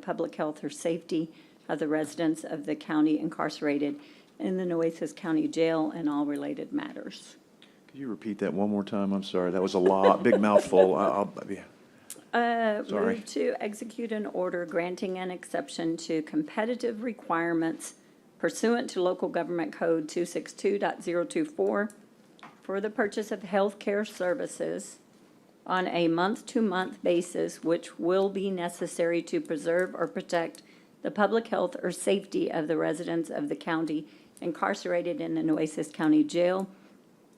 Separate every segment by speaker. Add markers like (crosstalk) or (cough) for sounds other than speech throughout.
Speaker 1: public health or safety of the residents of the county incarcerated in the Nueces County Jail and all related matters.
Speaker 2: Could you repeat that one more time? I'm sorry, that was a lot, big mouthful. I- I'll, yeah.
Speaker 1: Uh,
Speaker 2: Sorry.
Speaker 1: Move to execute an order granting an exception to competitive requirements pursuant to Local Government Code 262.024 for the purchase of healthcare services on a month-to-month basis, which will be necessary to preserve or protect the public health or safety of the residents of the county incarcerated in the Nueces County Jail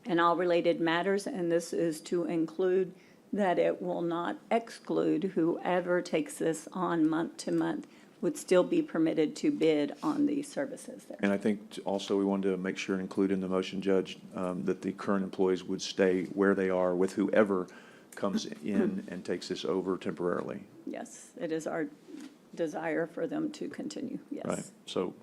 Speaker 1: and all related matters, and this is to include that it will not exclude whoever takes this on month to month would still be permitted to bid on these services there.
Speaker 2: And I think t- also we wanted to make sure and include in the motion, Judge, um, that the current employees would stay where they are with whoever comes in and takes this over temporarily,
Speaker 1: Yes, it is our desire for them to continue,
Speaker 2: right?
Speaker 1: yes.
Speaker 2: So,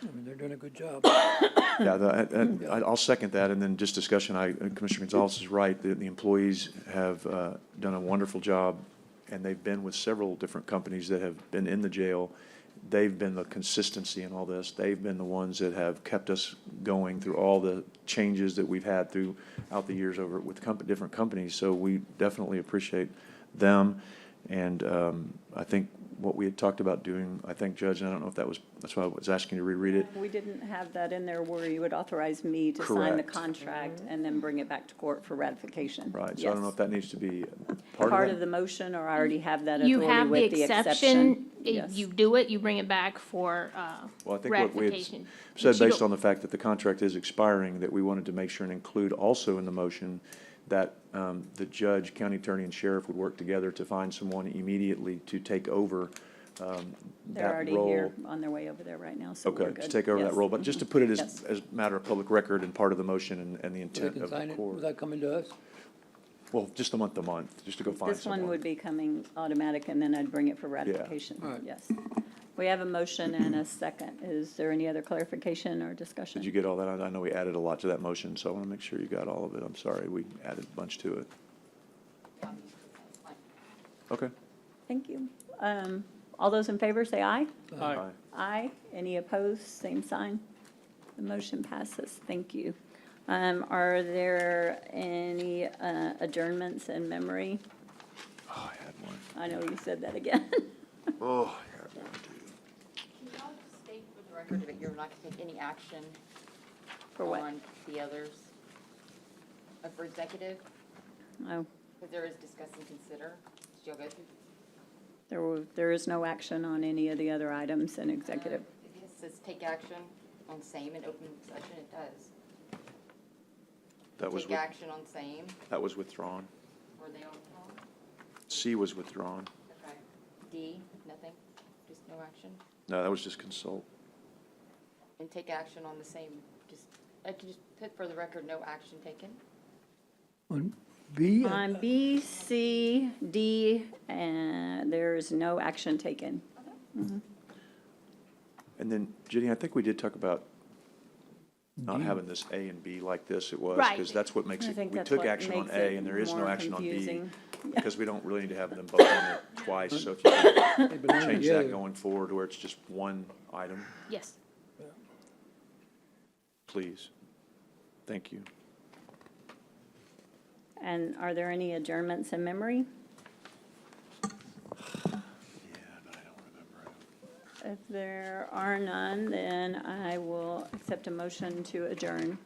Speaker 3: I mean, they're doing a good job.
Speaker 2: yeah, that- I- I- I'll second that, and then just discussion, I, Commissioner Gonzalez is right, the, the employees have uh, done a wonderful job, and they've been with several different companies that have been in the jail. They've been the consistency in all this, they've been the ones that have kept us going through all the changes that we've had throughout the years over with comp, different companies, so we definitely appreciate them. And um, I think what we had talked about doing, I think, Judge, and I don't know if that was, that's why I was asking you to reread it,
Speaker 1: We didn't have that in there where you would authorize me to sign the
Speaker 2: Correct.
Speaker 1: contract and then bring it back to court for ratification.
Speaker 2: Right, so I don't know
Speaker 1: Yes.
Speaker 2: if that needs to
Speaker 1: (laughs)
Speaker 2: be
Speaker 1: Part of
Speaker 2: that.
Speaker 1: the motion, or I already have that
Speaker 4: You
Speaker 1: authority
Speaker 4: have the
Speaker 1: with the
Speaker 4: exception,
Speaker 1: exception?
Speaker 4: i-
Speaker 1: Yes.
Speaker 4: you do it, you bring it back for uh,
Speaker 2: Well, I think what we had
Speaker 4: ratification.
Speaker 2: said,
Speaker 4: But you
Speaker 2: based
Speaker 4: don't-
Speaker 2: on the fact that the contract is expiring, that we wanted to make sure and include also in the motion that um, the judge, county attorney, and sheriff would work together to find someone immediately to take over um,
Speaker 1: They're
Speaker 2: that
Speaker 1: already here
Speaker 2: role.
Speaker 1: on their way over there right now, so we're
Speaker 2: Okay,
Speaker 1: good.
Speaker 2: to take over that
Speaker 1: Yes.
Speaker 2: role, but just to put it as,
Speaker 1: Yes.
Speaker 2: as a matter of public record and part of the motion and, and the
Speaker 3: They
Speaker 2: intent
Speaker 3: can
Speaker 2: of
Speaker 3: sign
Speaker 2: the
Speaker 3: it
Speaker 2: court.
Speaker 3: without coming to us.
Speaker 2: Well, just the month to month, just to go find
Speaker 1: This
Speaker 2: someone.
Speaker 1: one would be coming automatic, and then I'd bring it for
Speaker 3: All
Speaker 1: ratification,
Speaker 3: right.
Speaker 1: yes. We have a motion and a second. Is there any other clarification or
Speaker 2: Did you
Speaker 1: discussion?
Speaker 2: get all that? I I know we added a lot to that motion, so I want to make sure you got all of it. I'm sorry, we added a bunch to it. Okay.
Speaker 1: Thank you. Um, All those in favor, say aye.
Speaker 2: Aye.
Speaker 1: Aye. Any opposed, same sign. The motion passes. Thank you. Um, Are there any uh, adjournments in memory?
Speaker 2: Oh, I had one.
Speaker 1: I know you said that again. (laughs)
Speaker 2: Oh, I had one too.
Speaker 5: Can y'all just state for the record that you're not going to take any action
Speaker 1: For what?
Speaker 5: on the others? uh, For executive,
Speaker 1: Oh,
Speaker 5: because there is discuss and consider. Did y'all go through?
Speaker 1: there were, there is no action on any of the other items in executive.
Speaker 5: Uh, It says take action on same in open session, it does.
Speaker 2: That was,
Speaker 5: Take
Speaker 2: with-
Speaker 5: action on same,
Speaker 2: that was withdrawn.
Speaker 5: were they all wrong?
Speaker 2: C was withdrawn.
Speaker 5: Okay. D, nothing, just no action.
Speaker 2: No, that was just consult.
Speaker 5: And take action on the same, just, I could just put for the record, no action taken.
Speaker 3: On B, I
Speaker 1: On B, C, D, and there is no action taken.
Speaker 2: And then Jenny, I think we did talk about not having this A and B like this it was. Because
Speaker 4: Right.
Speaker 2: that's what makes
Speaker 1: I
Speaker 2: it,
Speaker 1: think
Speaker 2: we
Speaker 1: that's
Speaker 2: took
Speaker 1: what
Speaker 2: action on
Speaker 1: makes
Speaker 2: A
Speaker 1: it
Speaker 2: and there is no
Speaker 1: more
Speaker 2: action on B.
Speaker 1: confusing.
Speaker 2: Because we don't really need to have them both on it twice, so if you could change that going forward where it's just one item,
Speaker 4: Yes.
Speaker 2: please. Thank you.
Speaker 1: And are there any adjournments in memory? If there are none, then I will accept a motion to adjourn.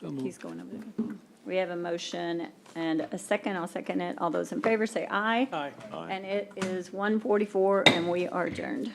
Speaker 3: So moved.
Speaker 1: He's going over there. We have a motion and a second. I'll second it. All those in favor say aye.
Speaker 3: Aye.
Speaker 2: Aye.
Speaker 1: And it is 1:44 and we are adjourned.